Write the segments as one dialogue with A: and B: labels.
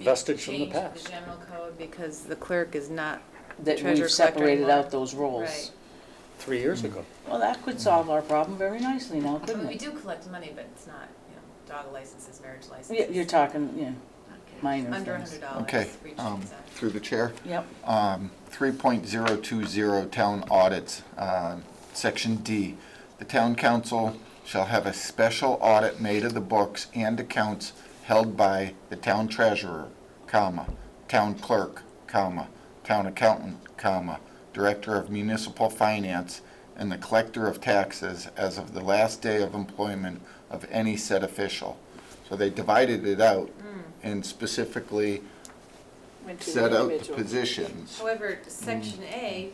A: vestige from the
B: Change
A: past.
B: the general code because the clerk is not
C: that
B: Treasure
C: we've
B: collector
C: separated
B: anymore?
C: out those roles.
B: right.
A: Three years
D: Mm.
A: ago.
C: Well, that could solve our problem very nicely now,
B: I mean,
C: couldn't
B: we
C: it?
B: do collect money, but it's not, you know, dog licenses, marriage
C: Yeah,
B: licenses.
C: You're talking, yeah, minor
B: Under a
C: things.
B: hundred dollars.
D: Okay,
B: for each
D: um,
B: transaction.
D: through the chair.
C: yep.
D: Um, 3.020 Town Audits, um, Section D. The town council shall have a special audit made of the books and accounts held by the town treasurer, comma, town clerk, comma, town accountant, comma, director of municipal finance, and the collector of taxes as of the last day of employment of any said official. So they divided it out and specifically set out the positions.
B: However, section A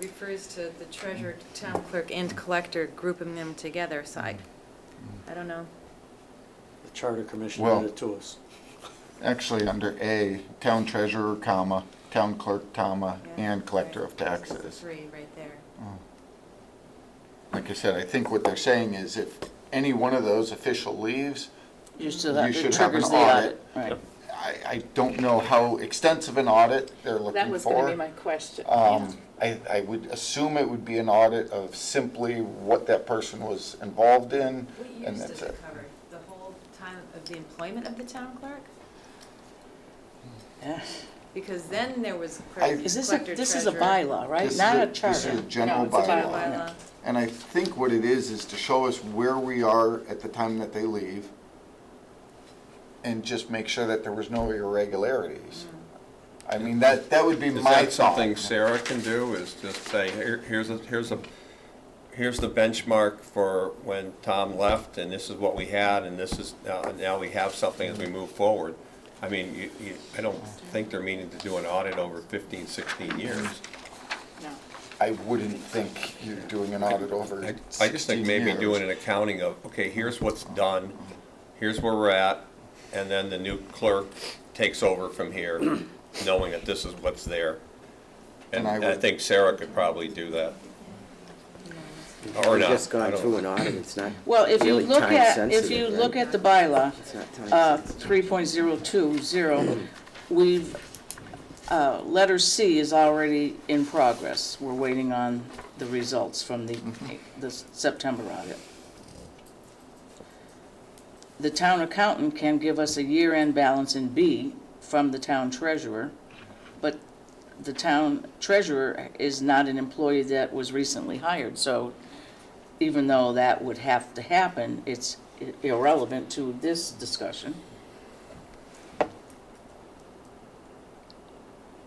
B: refers to the treasurer, town clerk, and collector, grouping them together, so I, I don't know.
A: The Charter Commission
D: Well-
A: did it to us.
D: Actually, under A, town treasurer, comma, town clerk, comma,
B: Yeah,
D: and collector
B: right.
D: of
B: So it's the
D: taxes.
B: Three right there.
D: Like I said, I think what they're saying is if any one of those official leaves,
C: Just so that
D: You
C: it
D: should have an
C: triggers the
D: audit.
C: audit, right.
D: I, I don't know how extensive an audit they're
E: That
D: looking
E: was gonna be
D: for.
E: my question.
D: Um, I, I would assume it would be an audit of simply what that person was involved in,
B: What
D: and
B: years does
D: that's it.
B: it cover? The whole time of the employment of the town clerk?
C: Yeah.
B: Because then there was
D: I-
B: clerk,
C: Is this a,
B: collector,
C: this is a
B: treasurer.
C: bylaw, right?
D: This is
C: Not
D: a-
C: a
D: This is a
C: charter.
D: general
E: it's a
B: Bylaw,
D: bylaw.
B: bylaw.
D: And I think what it is, is to show us where we are at the time that they leave and just make sure that there was no irregularities.
C: Mm-hmm.
D: I mean, that, that would be
F: Is
D: my
F: that
D: thought.
F: something Sarah can do, is just say, here, here's a, here's a, here's the benchmark for when Tom left, and this is what we had, and this is, now, now we have something as we move forward. I mean, you, you, I don't think they're meaning to do an audit over 15, 16 years.
E: No.
D: I wouldn't think you're doing an audit over
F: I I just think maybe
D: 16
F: doing
D: years.
F: an accounting of, okay, here's what's done, here's where we're at, and then the new clerk takes over from here, knowing that this is what's there. And
D: And I
F: and I
D: would-
F: think Sarah could probably do that. Or
G: We've
F: not.
G: just
F: I
G: gone
F: don't-
G: through an audit, it's not
C: Well, if you
G: really
C: look
G: time
C: at, if
G: sensitive,
C: you
G: right?
C: look at the bylaw,
G: It's not time
C: uh,
G: sensitive.
C: 3.020, we've, uh, letter C is already in progress. We're waiting on the results from the,
G: Mm-hmm.
C: the September audit. The town accountant can give us a year-end balance in B from the town treasurer, but the town treasurer is not an employee that was recently hired, so even though that would have to happen, it's i- irrelevant to this discussion.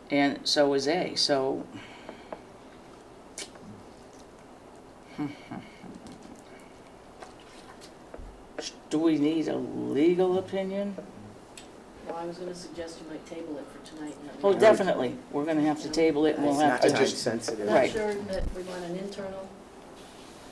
C: And so is A, so. Do we need a legal opinion?
E: Well, I was gonna suggest you might table it for tonight. and let me
C: Oh,
E: know.
C: definitely, we're gonna have to table it, and we'll
G: It's
C: have
G: not
C: to.
D: I
G: time
D: just-
G: sensitive.
E: Not
C: Right.
E: sure that we want an internal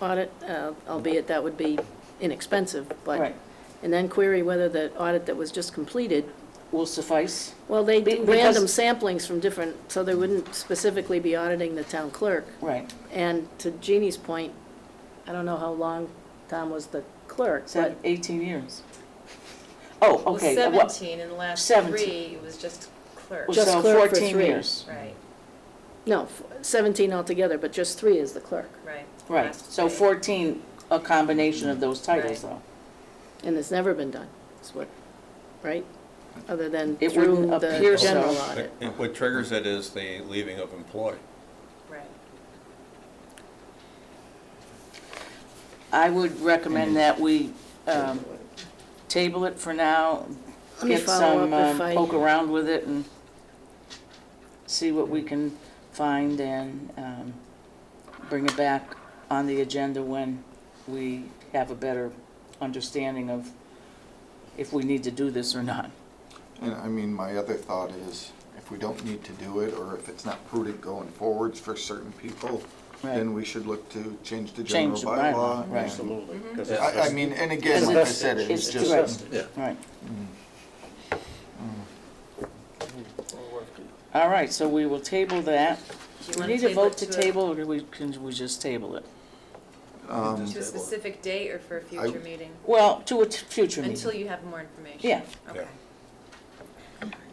E: audit, uh, albeit that would be inexpensive, but,
C: Right,
E: and then query whether the audit that was just completed,
C: will suffice,
E: well, they
C: Be-
E: do
C: because-
E: random samplings from different, so they wouldn't specifically be auditing the town clerk.
C: right,
E: And to Jeannie's point, I don't know how long Tom was the clerk, but
C: seven, eighteen years. Oh,
B: Well,
C: okay, uh, what,
B: seventeen, and the last
C: 17.
B: three, it was just clerk,
E: Was-
C: so
E: Just clerk for
C: fourteen
E: three.
C: years,
B: right,
E: No, f- 17 altogether, but just three is the clerk.
B: right.
C: right,
B: last
C: so
B: three.
C: fourteen, a combination of those titles
B: Right.
C: though.
E: And it's never been done, is what, right? Other than
C: It
E: through
C: wouldn't appear
E: the
C: so.
E: general
F: But
E: audit.
F: it- What triggers it is the leaving of employee.
B: Right.
C: I would recommend that we um, table it for now,
E: Let me
C: get
E: follow
C: some,
E: up
C: um,
E: if I,
C: poke around with it and see what we can find and um, bring it back on the agenda when we have a better understanding of if we need to do this or not.
D: And I mean, my other thought is, if we don't need to do it, or if it's not prudent going forwards for certain people, then we should look to change the general
C: Change the bylaw,
D: bylaw.
C: right.
D: and-
A: Absolutely. 'cause it's
D: I, I
A: just-
D: mean, and
C: Because
D: again, like I
C: it's-
D: said, it
C: it's
D: was
C: the
D: just.
C: rest.
A: Yeah.
C: Right. Mm. All right, so we will table that.
B: Do you
C: We
B: wanna
C: need a
B: table it
C: vote to
B: a-
C: table, or do we, can we just table it?
D: um,
B: To a specific date or for a future meeting?
C: Well, to a t- future meeting.
B: Until you have more information?
C: Yeah.
B: Okay.